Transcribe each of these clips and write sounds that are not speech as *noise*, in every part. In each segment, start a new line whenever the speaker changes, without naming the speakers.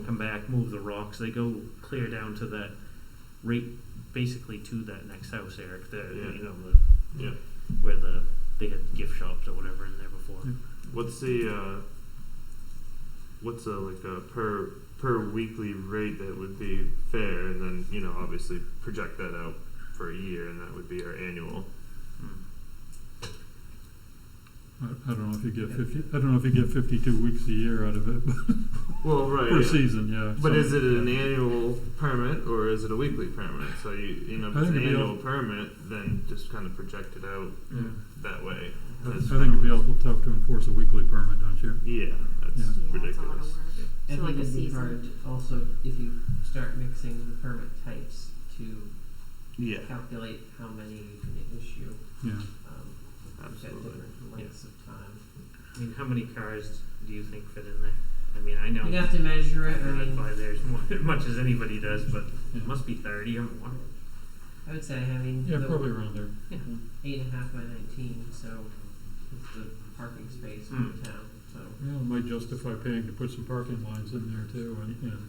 back, move the rocks. They go clear down to that right, basically to that next house, Eric. There,
Yeah.
you know, the,
Yeah.
where the they had gift shops or whatever in there before.
What's the uh, what's a like a per per weekly rate that would be fair, and then you know obviously project that out for a year, and that would be our annual.
Mm.
I, I don't know if you get fifty, I don't know if you get fifty-two weeks a year out of it, but
Well, right.
per
Oh, yeah.
season, yeah.
But
so-
is it an annual permit or is it a weekly permit? So you you know if
I
it's
think
an
it'd be
annual
all-
permit, then just kind of project it out
Yeah.
that way.
I I
That's
think it'd be
kind of-
awful tough to enforce a weekly permit, don't you?
Yeah, that's
Yeah.
Yeah, it's a lot
ridiculous.
of work.
I
So like
think
a
it'd be hard
season.
also if you start mixing the permit types to
Yeah,
calculate how many you can issue
Yeah.
um, at
absolutely.
different lengths of time.
I mean, how many cars do you think fit in there? I mean, I know
You'd have to measure
I
it. um, I
drive by
mean,
there as mu- *laughs* much as anybody does, but
Yeah.
it must be thirty or more.
I would say I mean
Yeah,
the
probably around there.
eight and a half by nineteen, so it's the parking space in
Hmm.
the town. So
Yeah, it might justify paying to put some parking lines in there too and, and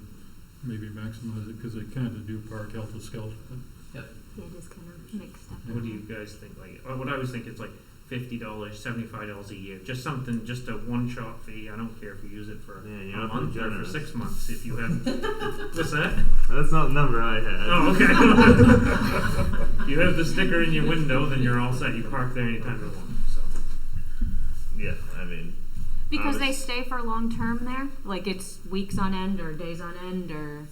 maybe maximize it, cause they kinda do park helter skelter.
Yeah, just kind of mixed up.
What do you guys think? Like, uh, what I was thinking is like fifty dollars, seventy-five dollars a year, just something, just a one-shot fee. I don't care if you use it for
Yeah,
a
you're not
month or for
generous.
six months. If you
*laughs*
have, what's that?
That's not the number I had.
Oh,
Oh, *laughs*
okay. you have the sticker in your window, then you're all set. You park there anytime you want. So,
Yeah, I mean,
Because they
Obvious.
stay for long term there, like it's weeks on end or days on end or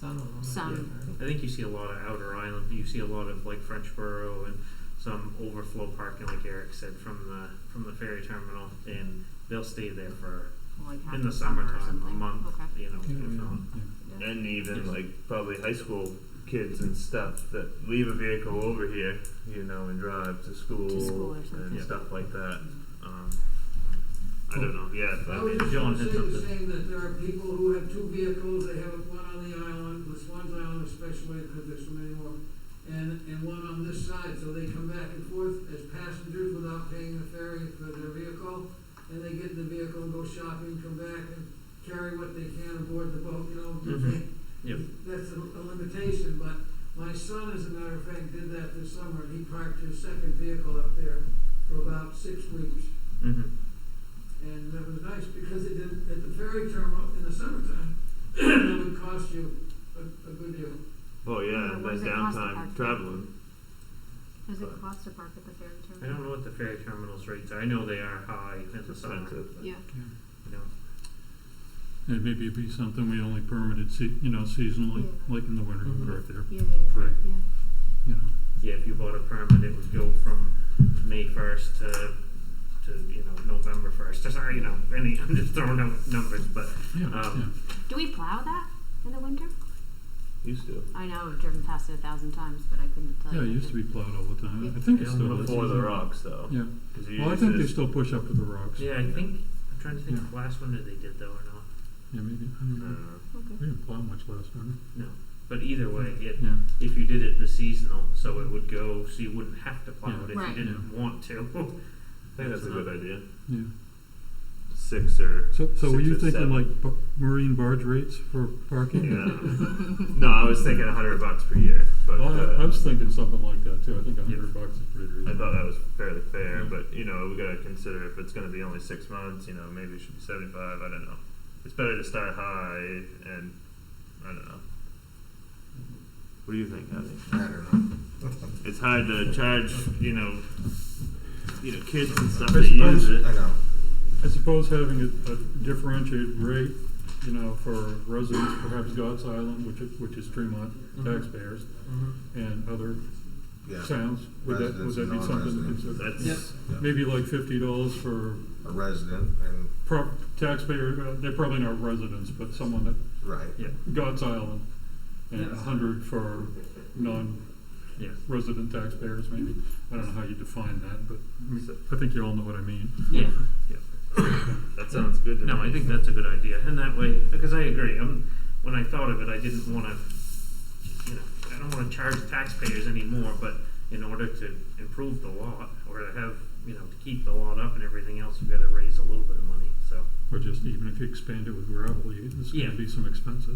some of them. are
Some.
different.
I think you see a lot of outer island. You see a lot of like Frenchboro and some overflow parking, like Eric said, from the from the ferry terminal, and they'll stay there for
like half
in the
a summer or
summertime, a
something.
month.
Okay.
You know,
Yeah,
if not.
yeah,
Yeah.
and even like probably high school kids and stuff that leave a vehicle over here, you know, and drive to school,
To school or something. Mm-hmm.
and
Yeah.
stuff like that. Um, I don't know. Yeah, but I
I
mean,
was just
John
gonna say
had
the
something.
same, that there are people who have two vehicles, they have one on the island, the Swans Island especially, because there's so many more, and, and one on this side, so they come back and forth as passengers without paying the ferry for their vehicle, and they get in the vehicle and go shopping, come back and carry what they can aboard the boat, you know, do
Mhm.
they-
Yep.
that's a, a limitation, but my son, as a matter of fact, did that this summer, he parked his second vehicle up there for about six weeks.
Mm-hmm.
And that was nice because it didn't, at the ferry terminal in the summertime, *clears throat* that would cost you a, a good deal.
oh yeah,
Yeah, what
that
does it cost to
downtime
park?
traveling.
Does
But-
it cost to park at the ferry
I
terminal?
don't know what the ferry terminals rates are. I know they are high in the summer.
Expensive.
but,
Yeah.
yeah.
You know,
And maybe it'd be something we only permitted se- you know, seasonally,
Yeah.
like in the winter,
Mm-hmm.
Mhm.
right there,
Yeah, yeah,
Right.
yeah.
you know.
yeah, if you bought a permit, it would go from May first to to you know November first. Sorry, you know, any *laughs* I'm just throwing out numbers, but
Yeah,
Um,
yeah.
Do we plow that in the winter?
Used to.
I know I've driven past it a thousand times, but I couldn't tell you.
Yeah, it
if
used to be plowed all the time. I
Yeah.
think
Yeah,
it's still. is.
Before the rocks, though.
Yeah.
'Cause you
Well, I
use
think they
this-
still push up to the rocks.
yeah, I think I'm trying to think
Yeah.
if last winter they did though or not.
Yeah, maybe. I
I
don't know.
don't know.
Okay.
We didn't plow much last winter.
No, but either way, it,
Yeah.
if you did it the seasonal, so it would go, so you wouldn't have to plow
Yeah.
it if
Right.
you didn't want to. *laughs*
I think that's a good idea.
Yeah.
Six or *laughs*
So, so were
Six
you
or
thinking
seven.
like b- marine barge rates for parking? *laughs*
Yeah. no, I was thinking a hundred bucks per year, but
Well,
uh,
I, I was thinking something like that too. I think a
Yeah.
hundred bucks is pretty
I
reasonable.
thought that was fairly fair,
Yeah.
but you know, we gotta consider if it's gonna be only six months, you know, maybe it should be seventy-five. I don't know. It's better to start high, and I don't know. What do you think, Abby? I don't
*laughs*
know. It's hard to charge, you know, you know, kids and stuff that
It's
use
supposed-
it.
I know.
I suppose having a, a differentiated rate, you know, for residents, perhaps God's Island, which is, which is Tremont
Mm-hmm.
taxpayers,
Mm-hmm.
and other
Yeah.
towns, would that, would
Residents
that
and
be something?
non-residents.
to consider?
That's
Yep.
Yeah.
Maybe like fifty dollars for
A resident and
pro- taxpayer, uh, they're probably not residents, but someone that,
right.
yeah,
God's Island, and a
Yes.
hundred for non-resident
yeah. Mm-hmm.
taxpayers, maybe. I don't know how you define that, but I mean,
So-
I think you all know what I mean.
Yeah.
that sounds good to
No,
me.
I think that's a good idea, and that way, because I agree. Um when I thought of it, I didn't want to, you know, I don't want to charge taxpayers anymore. But in order to improve the lot or to have, you know, to keep the lot up and everything else, you've got to raise a little bit of money. So.
Or just even if you expand it with gravel, you, there's
Yeah.
gonna be some expenses.